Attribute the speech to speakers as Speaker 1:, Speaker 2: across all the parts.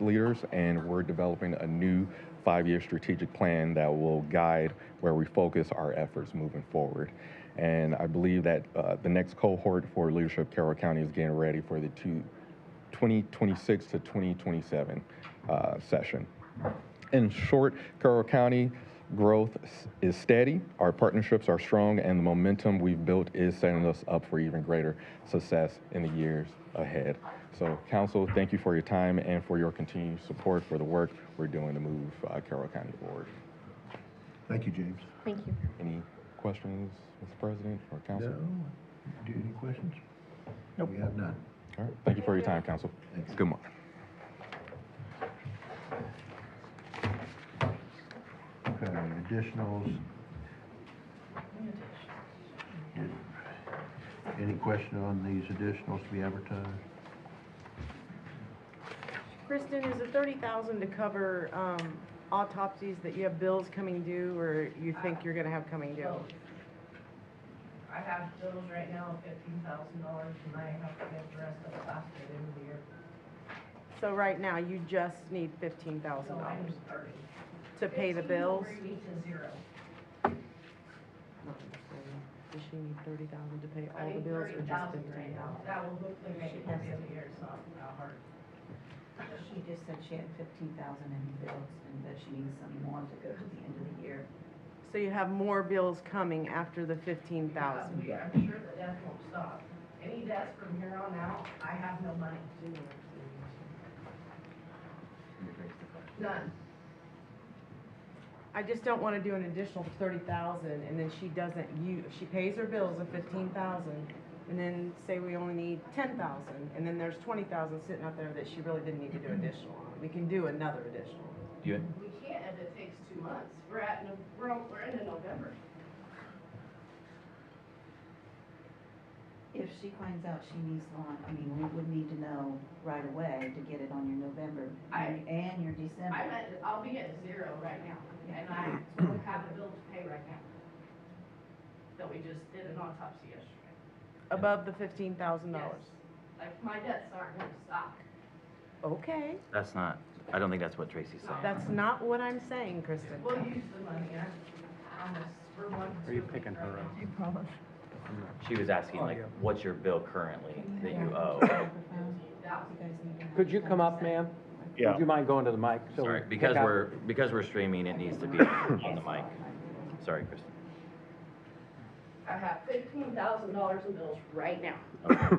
Speaker 1: leaders, and we're developing a new five year strategic plan that will guide where we focus our efforts moving forward. And I believe that uh, the next cohort for Leadership Carroll County is getting ready for the two, 2026 to 2027 uh, session. In short, Carroll County growth s- is steady, our partnerships are strong, and the momentum we've built is setting us up for even greater success in the years ahead. So, Council, thank you for your time and for your continued support for the work we're doing to move uh, Carroll County forward.
Speaker 2: Thank you, James.
Speaker 3: Thank you.
Speaker 1: Any questions, Mr. President or Council?
Speaker 2: No, do you have any questions? No, We have none.
Speaker 1: All right, thank you for your time, Council.
Speaker 2: Thanks.
Speaker 1: Good morning.
Speaker 2: Okay, additionals. Did- Any question on these additionals to be advertised?
Speaker 4: Kristen, is the thirty thousand to cover, um, autopsies that you have bills coming due or you think you're gonna have coming due?
Speaker 5: I have bills right now of fifteen thousand dollars and I have to get the rest of it last year, end of the year.
Speaker 4: So right now, you just need fifteen thousand
Speaker 5: So I'm
Speaker 4: dollars
Speaker 5: starting.
Speaker 4: to pay the bills?
Speaker 5: Fifteen forty to zero.
Speaker 4: Not understanding. Does she need thirty thousand to pay
Speaker 5: I
Speaker 4: all the
Speaker 5: need
Speaker 4: bills
Speaker 5: thirty
Speaker 4: or just
Speaker 5: thousand right
Speaker 4: fifteen
Speaker 5: now.
Speaker 4: thousand?
Speaker 5: That will hopefully make it to the end of the year, so it's not hard.
Speaker 6: She just said she had fifteen thousand in bills and that she needs some more to go to the end of the year.
Speaker 4: So you have more bills coming after the fifteen thousand?
Speaker 5: Yeah, I'm sure the death won't stop. Any deaths from here on out, I have no money. None.
Speaker 4: I just don't wanna do an additional thirty thousand and then she doesn't, you, she pays her bills of fifteen thousand and then say we only need ten thousand and then there's twenty thousand sitting out there that she really didn't need to do additional on. We can do another additional.
Speaker 5: We can't if it takes two months. We're at, no- we're, al- we're into November.
Speaker 6: If she finds out she needs lawn, I mean, we would need to know right away to get it on your November
Speaker 5: I-
Speaker 6: and your
Speaker 5: I'm
Speaker 6: December.
Speaker 5: at, I'll be at zero right now, and I have a bill to pay right now. That we just did an autopsy yesterday.
Speaker 4: Above the fifteen thousand dollars.
Speaker 5: Yes. Like, my debts aren't gonna stop.
Speaker 4: Okay,
Speaker 7: That's not, I don't think that's what Tracy's saying.
Speaker 4: that's not what I'm saying, Kristen.
Speaker 5: We'll use the money, I almost, we're one. Are you picking her up?
Speaker 7: She was asking like, what's your bill currently that you
Speaker 8: Oh.
Speaker 7: owe?
Speaker 9: Could you come up, ma'am? Yeah. Would you mind going to the mic? so we
Speaker 7: Sorry,
Speaker 9: can
Speaker 7: because
Speaker 9: pick up?
Speaker 7: we're, because we're streaming, it needs to be on the mic. Sorry, Kristen.
Speaker 5: I have fifteen thousand dollars in bills right now.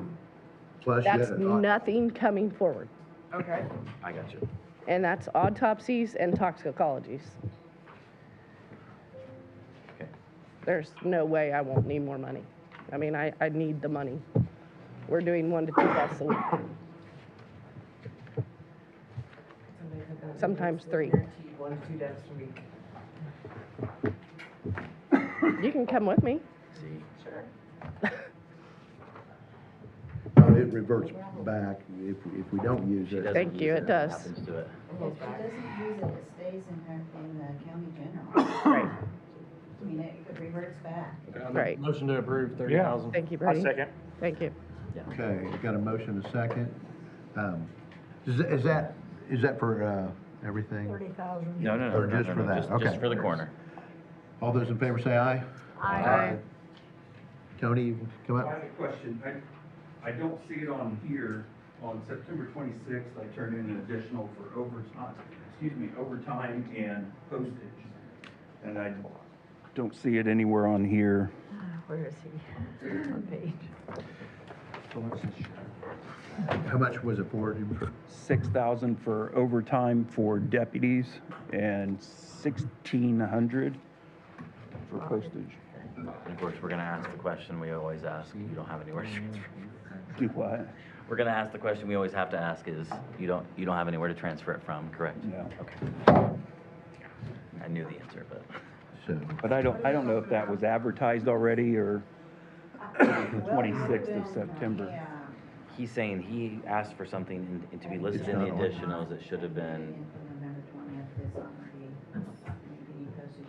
Speaker 2: Plus, you had
Speaker 10: That's
Speaker 2: an au-
Speaker 10: nothing coming forward.
Speaker 4: Okay.
Speaker 7: I got you.
Speaker 10: And that's autopsies and toxicologies.
Speaker 7: Okay.
Speaker 10: There's no way I won't need more money. I mean, I, I need the money. We're doing one to two deaths a week. Sometimes three.
Speaker 5: One, two debts a week.
Speaker 10: You can come with me.
Speaker 7: See? Sure.
Speaker 2: no, It reverts back if, if we don't use
Speaker 7: She
Speaker 2: it.
Speaker 7: doesn't
Speaker 10: Thank
Speaker 7: use
Speaker 10: you, it does.
Speaker 7: Happens to it.
Speaker 6: If she doesn't use it, it stays in her, in the county general.
Speaker 10: Right.
Speaker 6: I mean, it it reverts back.
Speaker 10: Right.
Speaker 9: Motion to approve thirty thousand.
Speaker 10: Thank you, Brady.
Speaker 9: second.
Speaker 10: Thank you.
Speaker 2: Okay, we've got a motion, a second. Um, Is, is that, is that for, uh, everything?
Speaker 5: thousand.
Speaker 7: No, no, no.
Speaker 2: Or
Speaker 7: no,
Speaker 2: just
Speaker 7: no,
Speaker 2: for
Speaker 7: no,
Speaker 2: that, okay.
Speaker 7: Just for the corner.
Speaker 2: All those in favor say aye.
Speaker 10: Aye.
Speaker 2: Tony, come
Speaker 8: I
Speaker 2: up.
Speaker 8: have a question. I, I don't see it on here. On September twenty-sixth, I turned in an additional for overtime, excuse me, overtime and postage. And I don't see it anywhere on here.
Speaker 5: Where is he? What page?
Speaker 2: How much was it for?
Speaker 8: Six thousand for overtime for deputies and sixteen hundred for postage.
Speaker 7: And of course, we're gonna ask the question we always ask, you don't have anywhere to transfer.
Speaker 8: Do what?
Speaker 7: We're gonna ask the question we always have to ask is, you don't, you don't have anywhere to transfer it from, correct?
Speaker 8: No.
Speaker 7: Okay. I knew the answer, but.
Speaker 2: So,
Speaker 8: But I don't, I don't know if that was advertised already or the twenty-sixth of September.
Speaker 6: Yeah.
Speaker 7: He's saying he asked for something in- in- to be listed in the additionals, it should have been,
Speaker 6: For November twentieth, it's already, maybe postage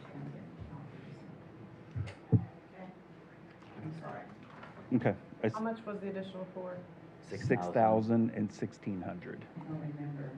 Speaker 6: gonna get.
Speaker 8: Okay. I s-
Speaker 4: How much was the additional for?
Speaker 7: Six
Speaker 8: Six thousand and sixteen hundred.
Speaker 6: I'll remember.